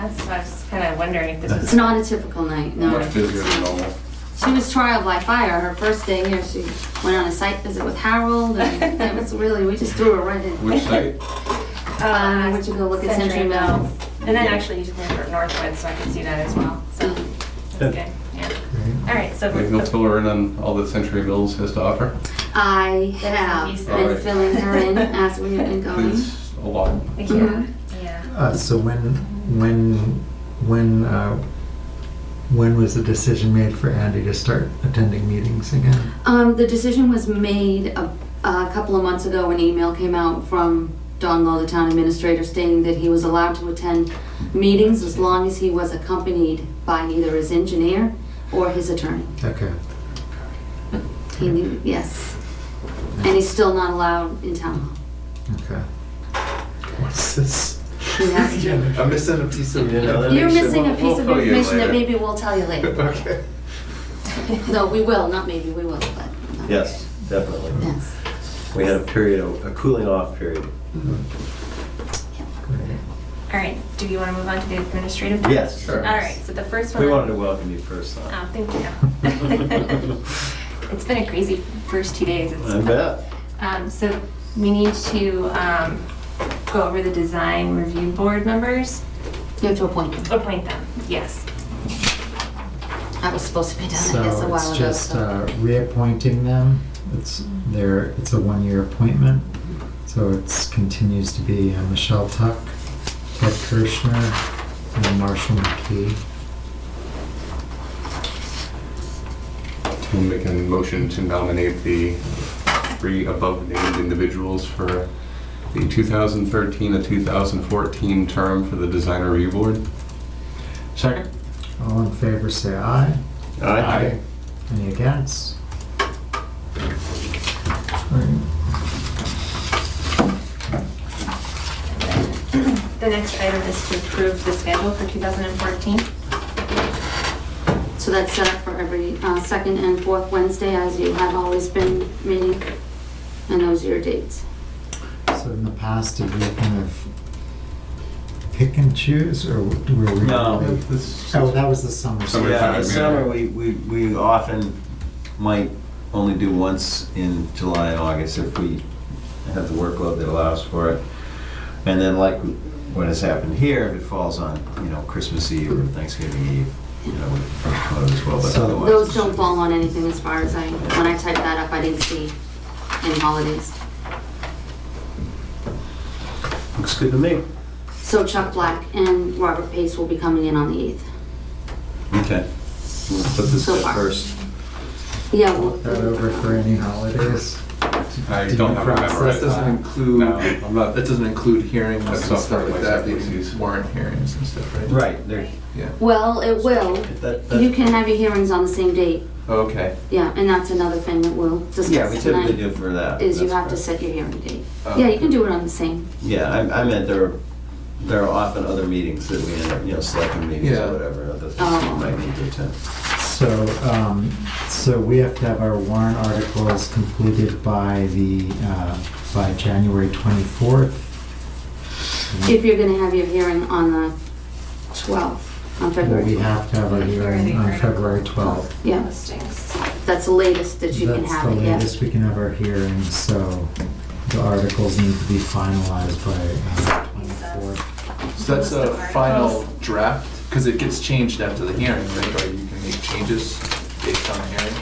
That's why I was kind of wondering if this That's- was. It's not a typical night, no. Much busier than normal. She was trial by fire. Her first day here, she went on a site visit with Harold, and it was really, we just threw her right in. Which site? Uh, why don't you go look at Century Mill? And then actually you took me for Northwood, so I could see that as well, so Mm. that's good, yeah. All right, so. Like, You'll fill her in on all that Century Mills has to offer? I what he have said. been filling her in as we have been going. It's a lot. Yeah, Mhm. yeah. Uh, so when, when, when, uh, when was the decision made for Andy to start attending meetings again? Um, the decision was made a, a couple of months ago. An email came out from Don Lowe, the town administrator, stating that he was allowed to attend meetings as long as he was accompanied by either his engineer or his attorney. Okay. He knew, yes. And he's still not allowed in town hall. Okay. What's this? He has to. I'm missing a piece of Yeah, that You're makes sense. missing a piece of We'll fill you in information that later. maybe we'll tell you later. Okay. No, we will, not maybe, we will, but. Yes, definitely. Yes. We had a period, of- a cooling off period. All right, do you want to move on to the administrative? Yes. All right, so the first one. We wanted to welcome you first, Uh-huh. Oh, though. thank you. It's been a crazy first two days. It's- I bet. Um, so we need to, um, go over the design review board members, You have to appoint him. appoint them, yes. That was supposed to be done, I guess, a So while it's ago. just uh, so- reappointing them. It's their, it's a one-year appointment. So it's continues to be uh, Michelle Tuck, Ted Kirschner, and Marshall McKee. We'll make a motion to nominate the three above named individuals for the 2013 to 2014 term for the Design Review Board. Second. All in favor, say aye. Aye. Any against? The next item is to approve the schedule for 2014. So that's set up for every uh, second and fourth Wednesday, as you have always been meeting, and those are your dates. So in the past, did we kind of pick and choose, or were we? No. Oh, that was the summer. Summer. school. Yeah, time, in yeah. summer, we, we, we often might only do once in July and August if we have the workload that allows for it. And then like what has happened here, if it falls on, you know, Christmas Eve or Thanksgiving Eve, you know, with workload as well, but So- otherwise. Those it don't should- fall on anything as far as I, when I typed that up, I didn't see any holidays. Looks good to me. So Chuck Black and Robert Pace will be coming in on the 8th. Okay. We'll put this So at far. first. Yeah. we'll- That over for any holidays? I Did don't you have a process member right That this? now. doesn't include, No, I'm not- that doesn't include hearings and That's not stuff part like of that, my they use warrant hearings and stuff, right? Right, there, Yeah, Well, it will. that, You that, can have your hearings on the same date. okay. Yeah, and that's another thing that we'll yeah, we discuss typically tonight, do for that. is you That's have to correct. set your hearing date. Oh. Yeah, you can do it on the same. Yeah, I, I meant there, are- there are often other meetings that we, end up, you know, selecting meetings Yeah. or whatever, other things Oh. we might need to attend. So, um, so we have to have our warrant articles completed by the, uh, by January 24th. If you're gonna have your hearing on the 12th, on Well, February We 12th. have to have a hearing on uh, February 12th. Yeah, Listings. that's the latest that you can That's the have it, yeah. latest we can have our hearing, so the articles need to be finalized by uh, 24th. So List that's a of final articles. draft, because it gets changed after the hearing, right, or you can make changes based on the hearing?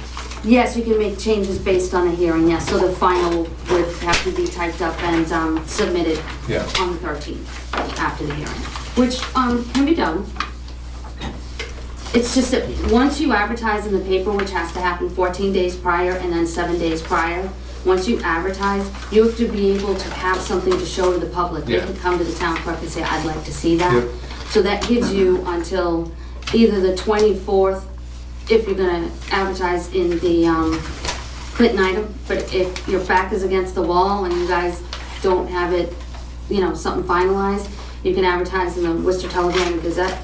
Yes, you can make changes based on a hearing, yes, so the final would have to be typed up and um, submitted Yeah. on the 13th after the hearing, which um, can be done. It's just that, once you advertise in the paper, which has to happen 14 days prior and then seven days prior, once you advertise, you have to be able to have something to show to the public. They Yeah. can come to the town clerk and say, I'd like to see that. Yep. So that gives you until either the 24th, if you're gonna advertise in the um, Clinton item, but if your back is against the wall and you guys don't have it, you know, something finalized, you can advertise in the Worcester Telegram and Gazette,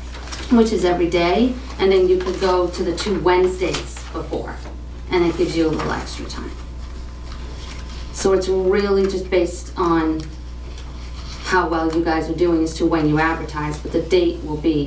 which is every day, and then you could go to the two Wednesdays before, and it gives you a little extra time. So it's really just based on how well you guys are doing as to when you advertise, but the date will be